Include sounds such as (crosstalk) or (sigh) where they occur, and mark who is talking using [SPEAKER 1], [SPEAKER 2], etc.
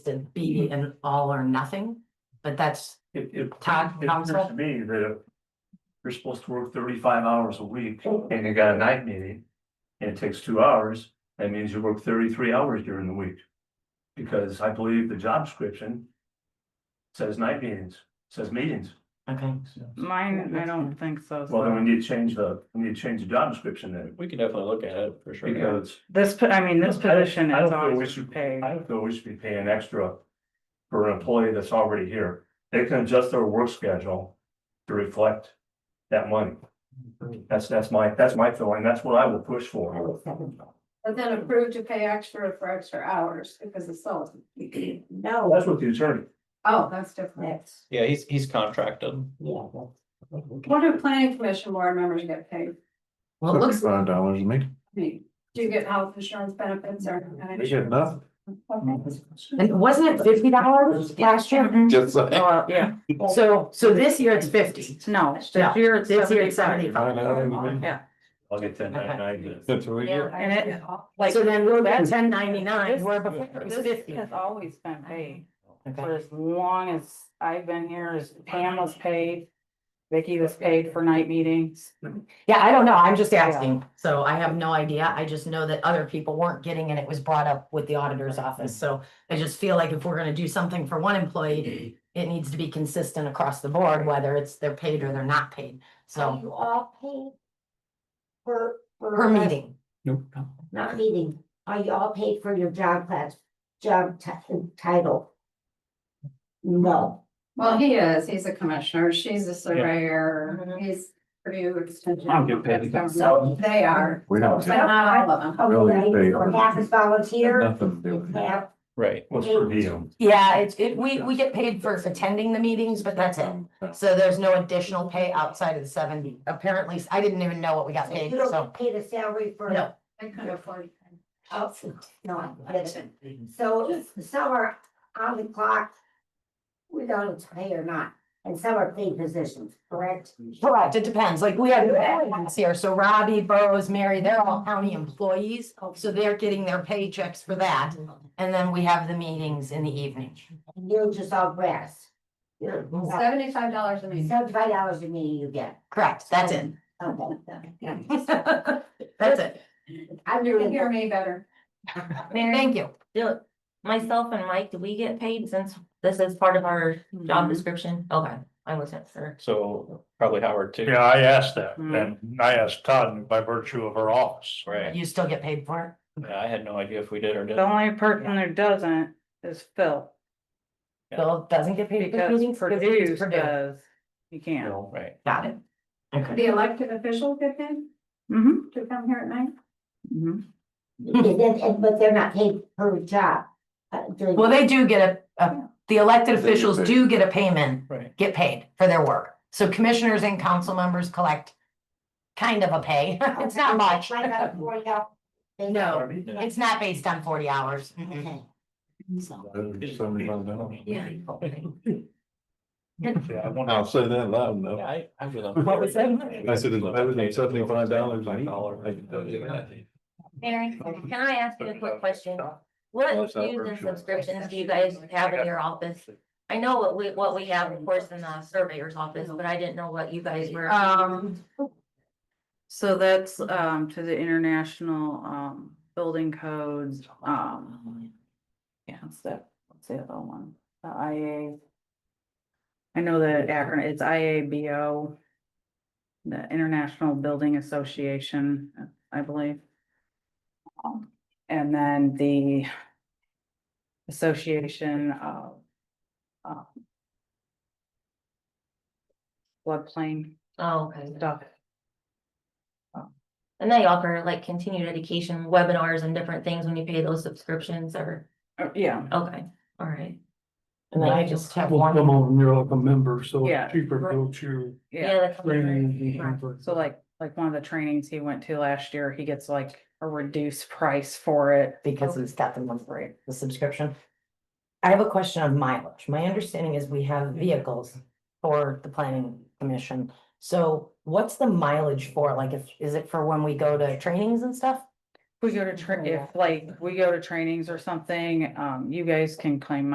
[SPEAKER 1] to be
[SPEAKER 2] Mm-hmm.
[SPEAKER 1] an all or nothing, but that's,
[SPEAKER 3] It, it.
[SPEAKER 1] Todd,
[SPEAKER 3] it
[SPEAKER 1] counsel?
[SPEAKER 3] appears To me, that you're supposed to work thirty-five hours a week and you got a night meeting. And it takes two hours, that means you work thirty-three hours during the week. Because I believe the job description. Says night meetings, says meetings.
[SPEAKER 1] okay.
[SPEAKER 2] Mine, I don't think so.
[SPEAKER 3] Well, then we
[SPEAKER 2] so.
[SPEAKER 3] need to change the, we need to change the job description then,
[SPEAKER 4] We can definitely look at it for sure.
[SPEAKER 3] because
[SPEAKER 2] This, po- I mean, this
[SPEAKER 3] I don't-
[SPEAKER 2] position
[SPEAKER 3] I don't
[SPEAKER 2] is
[SPEAKER 3] feel we
[SPEAKER 2] always
[SPEAKER 3] should-
[SPEAKER 2] paid.
[SPEAKER 3] I don't feel we should be paying extra. For an employee that's already here, they can adjust their work schedule to reflect that money. That's, that's my, that's my feeling, that's what I will push
[SPEAKER 5] Oh.
[SPEAKER 3] for.
[SPEAKER 6] But then approved to pay extra for extra hours because it's sold.
[SPEAKER 3] Well,
[SPEAKER 1] No,
[SPEAKER 3] That's what the attorney,
[SPEAKER 6] Oh, that's different.
[SPEAKER 1] that's,
[SPEAKER 4] Yeah, he's, he's contracted.
[SPEAKER 1] yeah, that's.
[SPEAKER 6] What do planning commission board members get paid?
[SPEAKER 1] Well, it looks,
[SPEAKER 7] Fifty-five dollars a meeting.
[SPEAKER 6] I mean, do you get health insurance benefits or?
[SPEAKER 7] They
[SPEAKER 1] (laughs)
[SPEAKER 7] get nothing.
[SPEAKER 1] and wasn't it fifty dollars last year?
[SPEAKER 2] Mhm.
[SPEAKER 7] Just like. (laughs)
[SPEAKER 1] Or-
[SPEAKER 2] Yeah,
[SPEAKER 1] So, so this year it's fifty.
[SPEAKER 2] no, this
[SPEAKER 1] Yeah,
[SPEAKER 2] year it's
[SPEAKER 1] This year it's
[SPEAKER 2] 75.
[SPEAKER 1] seventy-five.
[SPEAKER 2] Yeah.
[SPEAKER 3] I'll get ten ninety-nine.
[SPEAKER 7] That's what we get.
[SPEAKER 2] And it- Like,
[SPEAKER 1] So then we're at
[SPEAKER 2] that's-
[SPEAKER 1] ten ninety-nine,
[SPEAKER 2] This-
[SPEAKER 1] where before it was
[SPEAKER 2] This
[SPEAKER 1] fifty.
[SPEAKER 2] has always been paid for
[SPEAKER 1] Okay.
[SPEAKER 2] as long as I've been here, as Pam was paid. Vicky was paid for night meetings.
[SPEAKER 1] Yeah, I don't know, I'm just
[SPEAKER 2] Yeah.
[SPEAKER 1] asking, so I have no idea, I just know that other people weren't getting, and it was brought up with the auditor's office, so. I just feel like if we're gonna do something for one employee, it needs to be consistent across the board, whether it's they're paid or they're not paid,
[SPEAKER 8] Are
[SPEAKER 1] so,
[SPEAKER 8] you all paid? For, for.
[SPEAKER 1] per meeting.
[SPEAKER 7] Nope.
[SPEAKER 8] Not meeting, are you all paid for your job class, job ti- title? No,
[SPEAKER 6] Well, he is, he's a commissioner, she's a surveyor,
[SPEAKER 2] Mhm.
[SPEAKER 6] he's Purdue Extension.
[SPEAKER 4] I don't get paid.
[SPEAKER 6] So they are,
[SPEAKER 7] We don't
[SPEAKER 6] but
[SPEAKER 7] get
[SPEAKER 6] not all of them.
[SPEAKER 7] Really,
[SPEAKER 8] okay,
[SPEAKER 7] they-
[SPEAKER 8] or half is volunteer,
[SPEAKER 7] nothing to do with it.
[SPEAKER 8] half,
[SPEAKER 4] Right.
[SPEAKER 3] What's for you?
[SPEAKER 1] Yeah, it's, it, we, we get paid for attending the meetings, but that's it,
[SPEAKER 7] Um,
[SPEAKER 1] so there's no additional pay outside of the seventy, apparently, I didn't even know what we got
[SPEAKER 8] you
[SPEAKER 1] paid,
[SPEAKER 8] don't
[SPEAKER 1] so.
[SPEAKER 8] get paid a salary for.
[SPEAKER 1] No.
[SPEAKER 6] They could afford.
[SPEAKER 8] Oh, no, I get it. so some are on the clock. We don't know if it's pay or not, and some are paid positions, correct?
[SPEAKER 1] Correct, it depends, like we have employees here, so Robbie, Burrows, Mary, they're all county employees, so they're getting their paychecks for that. And then we have the meetings in the evening.
[SPEAKER 8] And You're just all grass. You're
[SPEAKER 6] Seventy-five dollars a meeting.
[SPEAKER 8] seventy-five dollars a meeting you get,
[SPEAKER 1] Correct, that's it. (laughs)
[SPEAKER 8] okay.
[SPEAKER 1] That's it,
[SPEAKER 8] I'm
[SPEAKER 6] You can
[SPEAKER 8] doing.
[SPEAKER 6] hear me better.
[SPEAKER 1] thank you.
[SPEAKER 5] Do, myself and Mike, do we get paid since this is part of our job
[SPEAKER 2] Mhm.
[SPEAKER 5] description? Okay, I wasn't sure.
[SPEAKER 4] So probably Howard too.
[SPEAKER 9] Yeah, I asked that,
[SPEAKER 2] Hmm.
[SPEAKER 9] and I asked Todd by virtue of her office.
[SPEAKER 4] Right.
[SPEAKER 1] You still get paid for
[SPEAKER 4] Yeah, I had no idea if we did or
[SPEAKER 2] The
[SPEAKER 4] didn't.
[SPEAKER 2] only person that doesn't is Phil,
[SPEAKER 1] it, Bill doesn't get paid for
[SPEAKER 2] because
[SPEAKER 1] meetings. because
[SPEAKER 2] Purdue
[SPEAKER 1] it's Purdue.
[SPEAKER 2] does, you can't.
[SPEAKER 4] Right.
[SPEAKER 1] Got it. Okay.
[SPEAKER 6] The elected official get paid
[SPEAKER 2] Mm-hmm,
[SPEAKER 6] to come here at night?
[SPEAKER 2] mm-hmm.
[SPEAKER 8] And then- and- but they're not paid per job. uh, during-
[SPEAKER 1] Well, they do get a, a, the elected
[SPEAKER 7] They get
[SPEAKER 1] officials
[SPEAKER 7] paid.
[SPEAKER 1] do get a payment,
[SPEAKER 4] Right.
[SPEAKER 1] get paid for their work. So commissioners and council members collect kind of a pay, (laughs) it's not much.
[SPEAKER 8] Like a forty hour-
[SPEAKER 1] (laughs)
[SPEAKER 8] they-
[SPEAKER 3] Oh.
[SPEAKER 1] No,
[SPEAKER 4] No.
[SPEAKER 1] it's not based on forty hours. Mhm.
[SPEAKER 8] Okay.
[SPEAKER 7] Seventy-five dollars.
[SPEAKER 5] Yeah.
[SPEAKER 9] Yeah, I wonder-
[SPEAKER 7] I'll say that loud
[SPEAKER 4] Yeah,
[SPEAKER 7] enough.
[SPEAKER 4] I, I
[SPEAKER 1] (laughs)
[SPEAKER 4] was.
[SPEAKER 1] What was that?
[SPEAKER 7] I said it's better than seventy-five dollars a
[SPEAKER 4] Dollar.
[SPEAKER 7] meeting.
[SPEAKER 5] Mary, can I ask you a quick question?
[SPEAKER 3] Oh,
[SPEAKER 5] What
[SPEAKER 7] Yes, I
[SPEAKER 5] dues and
[SPEAKER 7] appreciate it.
[SPEAKER 5] subscriptions do you guys have in your office? I know what we, what we have, of course, in the surveyor's office, but I didn't know what you guys were.
[SPEAKER 2] Um. So that's um to the international um building codes, um. Yeah, what's that, what's the other one, the IA. I know the acronym, it's IABO. The International Building Association, I believe. Um, And then the. Association of. um, Floodplain
[SPEAKER 5] Oh, okay.
[SPEAKER 2] stuff.
[SPEAKER 5] And they offer like continued education webinars and different things when you pay those subscriptions or,
[SPEAKER 2] Uh, Yeah,
[SPEAKER 5] okay, all right.
[SPEAKER 1] And then I
[SPEAKER 5] Thank you.
[SPEAKER 1] just have one,
[SPEAKER 9] over, you're like a member, so
[SPEAKER 2] Yeah.
[SPEAKER 9] cheaper to go to
[SPEAKER 2] yeah.
[SPEAKER 5] that's- Right.
[SPEAKER 2] So like, like one of the trainings he went to last year, he gets like a reduced price for it.
[SPEAKER 1] because it's got the month rate, the subscription. I have a question on mileage. My understanding is we have vehicles for the planning commission. So what's the mileage for? Like, if, is it for when we go to trainings and stuff?
[SPEAKER 2] Oh, We go to, tra- if like, we go to trainings or something, um, you guys can claim